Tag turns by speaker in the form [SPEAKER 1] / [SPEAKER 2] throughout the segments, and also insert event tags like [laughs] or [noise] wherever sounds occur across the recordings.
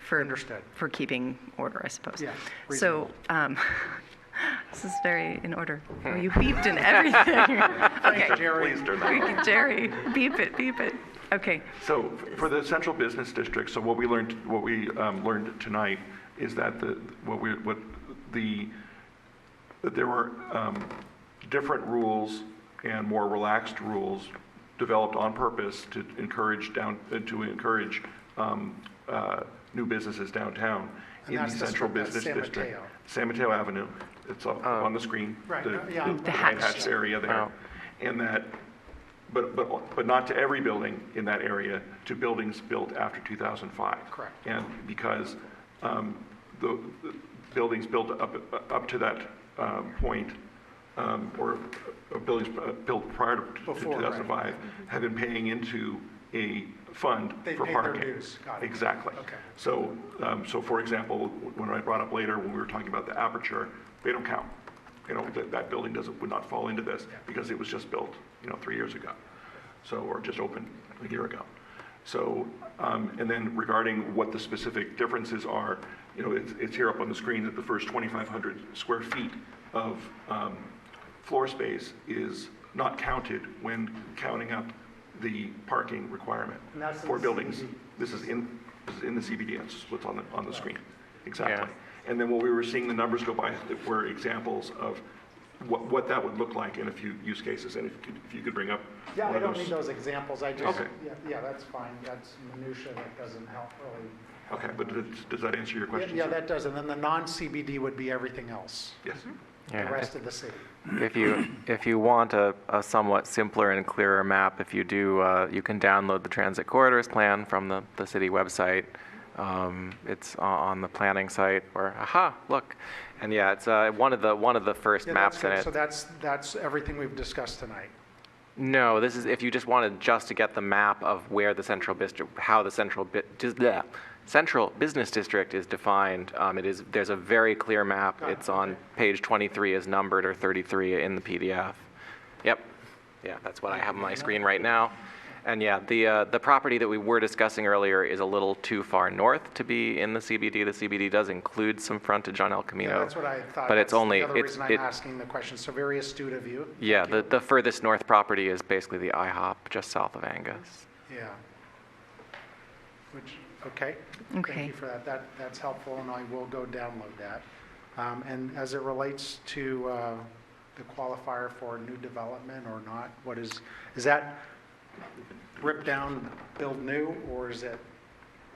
[SPEAKER 1] for.
[SPEAKER 2] Understood.
[SPEAKER 1] For keeping order, I suppose.
[SPEAKER 2] Yeah,
[SPEAKER 1] So, um, [laughs] this is very in order.
[SPEAKER 2] Hmm.
[SPEAKER 1] Oh, you beeped and
[SPEAKER 2] [laughs]
[SPEAKER 1] everything. Okay.
[SPEAKER 2] Jerry,
[SPEAKER 3] Please do
[SPEAKER 1] We
[SPEAKER 3] not.
[SPEAKER 1] can- Jerry, beep it, beep it. Okay,
[SPEAKER 3] So for the central business district, so what we learned, what we um, learned tonight is that the, what we, what the, that there were um, different rules and more relaxed rules developed on purpose to encourage down, uh, to encourage um, uh, new businesses downtown
[SPEAKER 2] And
[SPEAKER 3] in the
[SPEAKER 2] that's the-
[SPEAKER 3] central
[SPEAKER 2] that's
[SPEAKER 3] business
[SPEAKER 2] San
[SPEAKER 3] district.
[SPEAKER 2] Mateo.
[SPEAKER 3] San Mateo Avenue, it's up on the screen.
[SPEAKER 2] Right,
[SPEAKER 3] the-
[SPEAKER 2] uh, yeah.
[SPEAKER 3] Oh. the-
[SPEAKER 2] The
[SPEAKER 1] hatched.
[SPEAKER 3] hatched area there. And that but, but, but not to every building in that area, to buildings built after 2005.
[SPEAKER 2] Correct.
[SPEAKER 3] And because um, the the buildings built up, up to that um, point, um, or uh, buildings uh, built prior to to
[SPEAKER 2] Before, right.
[SPEAKER 3] 2005, have been paying into a fund
[SPEAKER 2] They
[SPEAKER 3] for
[SPEAKER 2] paid their
[SPEAKER 3] parking.
[SPEAKER 2] dues. Got it.
[SPEAKER 3] Exactly.
[SPEAKER 2] Okay.
[SPEAKER 3] So, um, so for example, when I brought up later, when we were talking about the aperture, they don't count. You know, that, that building doesn't, would not fall into this because it was just built, you know, three years ago. So, or just opened a year ago. So, um, and then regarding what the specific differences are, you know, it's, it's here up on the screen that the first 2,500 square feet of, um, floor space is not counted when counting up the parking requirement
[SPEAKER 2] And that's in
[SPEAKER 3] for
[SPEAKER 2] the
[SPEAKER 3] buildings.
[SPEAKER 2] CBD.
[SPEAKER 3] This is in, this is in the CBD, it's what's on the, on the screen, exactly.
[SPEAKER 4] Yeah.
[SPEAKER 3] And then what we were seeing the numbers go by were examples of what, what that would look like in a few use cases, and if you could, if you could bring up
[SPEAKER 2] Yeah, I
[SPEAKER 3] one of
[SPEAKER 2] don't need
[SPEAKER 3] those.
[SPEAKER 2] those examples, I just,
[SPEAKER 3] Okay.
[SPEAKER 2] yeah, yeah, that's fine, that's minutia, that doesn't help really.
[SPEAKER 3] Okay, but does- does that answer your
[SPEAKER 2] Yeah,
[SPEAKER 3] question?
[SPEAKER 2] Yeah,
[SPEAKER 3] sir?
[SPEAKER 2] that does, and then the non-CBD would be everything else,
[SPEAKER 3] Yes,
[SPEAKER 2] the
[SPEAKER 4] Yeah,
[SPEAKER 2] rest of the city.
[SPEAKER 4] If you, if you want a, a somewhat simpler and clearer map, if you do, uh, you can download the transit corridors plan from the, the city website. Um, it's o- on the planning site, or, aha, look. And yeah, it's, uh, one of the, one of the first
[SPEAKER 2] Yeah, that's
[SPEAKER 4] maps in
[SPEAKER 2] good.
[SPEAKER 4] it.
[SPEAKER 2] So that's, that's everything we've discussed tonight.
[SPEAKER 4] No, this is if you just wanted just to get the map of where the central district, how the central bi- dis- bleh, central business district is defined. Um, it is there's a very clear map.
[SPEAKER 2] Got it,
[SPEAKER 4] It's on
[SPEAKER 2] okay.
[SPEAKER 4] page 23 as numbered or 33 in the PDF. Yep, yeah, that's what I have on my screen right now. And yeah, the uh, the property that we were discussing earlier is a little too far north to be in the CBD. The CBD does include some frontage on El Camino.
[SPEAKER 2] Yeah, that's what I thought.
[SPEAKER 4] But
[SPEAKER 2] That's
[SPEAKER 4] it's
[SPEAKER 2] the
[SPEAKER 4] only
[SPEAKER 2] other
[SPEAKER 4] it's
[SPEAKER 2] reason I'm
[SPEAKER 4] it-
[SPEAKER 2] asking the question, so very astute of you.
[SPEAKER 4] yeah, the, the furthest north property is basically the IHOP just south of Angus.
[SPEAKER 2] Yeah. Which, okay. Thank
[SPEAKER 1] Okay.
[SPEAKER 2] you for that. That, that's helpful, and I will go download that. Um, and as it relates to, uh, the qualifier for new development or not, what is, is that rip down, build new, or is it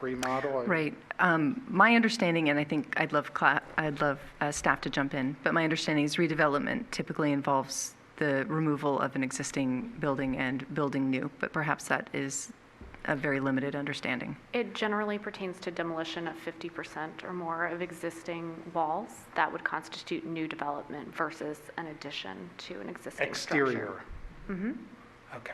[SPEAKER 2] remodel?
[SPEAKER 1] right. Um, My understanding, and I think I'd love, cla- I'd love uh, staff to jump in, but my understanding is redevelopment typically involves the removal of an existing building and building new, but perhaps that is a very limited understanding.
[SPEAKER 5] It generally pertains to demolition of 50% or more of existing walls. That would constitute new development versus an addition to an existing structure.
[SPEAKER 2] Exterior. Mm-hmm. Okay.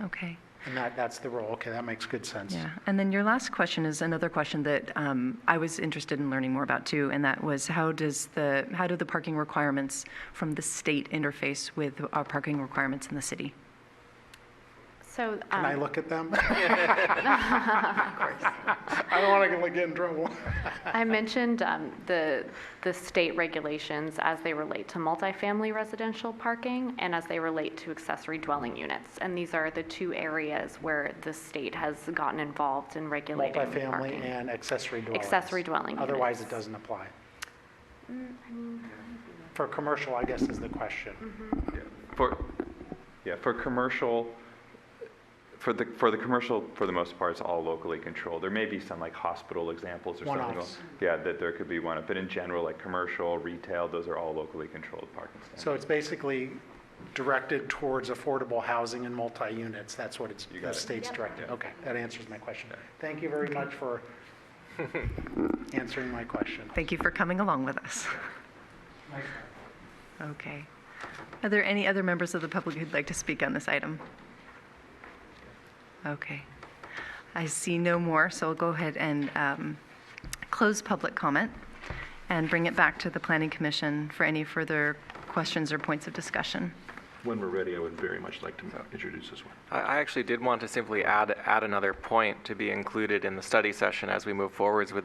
[SPEAKER 1] Okay.
[SPEAKER 2] And that, that's the role. Okay, that makes good sense.
[SPEAKER 1] Yeah, and then your last question is another question that um, I was interested in learning more about too, and that was how does the, how do the parking requirements from the state interface with our parking requirements in the city?
[SPEAKER 5] So.
[SPEAKER 2] Can I
[SPEAKER 5] um,
[SPEAKER 2] look
[SPEAKER 1] [laughs]
[SPEAKER 2] at them? I don't want to get in trouble.
[SPEAKER 5] I mentioned um, the, the state regulations as they relate to multifamily residential parking and as they relate to accessory dwelling units. And these are the two areas where the state has gotten involved in regulating parking.
[SPEAKER 2] Multifamily and accessory dwellings.
[SPEAKER 5] Accessory dwelling units.
[SPEAKER 2] Otherwise, it doesn't apply. For commercial, I guess, is the question.
[SPEAKER 5] Mm-hmm.
[SPEAKER 6] For, yeah, for commercial, for the, for the commercial, for the most part, it's all locally controlled. There may be some like hospital examples or something.
[SPEAKER 2] One-offs.
[SPEAKER 6] Yeah, that there could be one, but in general, like commercial, retail, those are all locally controlled parking standards.
[SPEAKER 2] So it's basically directed towards affordable housing and multi-units. That's what it's,
[SPEAKER 6] You got
[SPEAKER 2] the
[SPEAKER 6] it.
[SPEAKER 2] state's directed.
[SPEAKER 6] Yeah.
[SPEAKER 2] Okay, that answers my question. Thank you very much
[SPEAKER 6] [laughs]
[SPEAKER 2] for answering my question.
[SPEAKER 1] Thank you for coming along with us. Okay. Are there any other members of the public who'd like to speak on this item? Okay. I see no more, so I'll go ahead and um, close public comment and bring it back to the Planning Commission for any further questions or points of discussion.
[SPEAKER 3] when we're ready, I would very much like to introduce this one.
[SPEAKER 4] I- I actually did want to simply add, add another point to be included in the study session as we move forwards with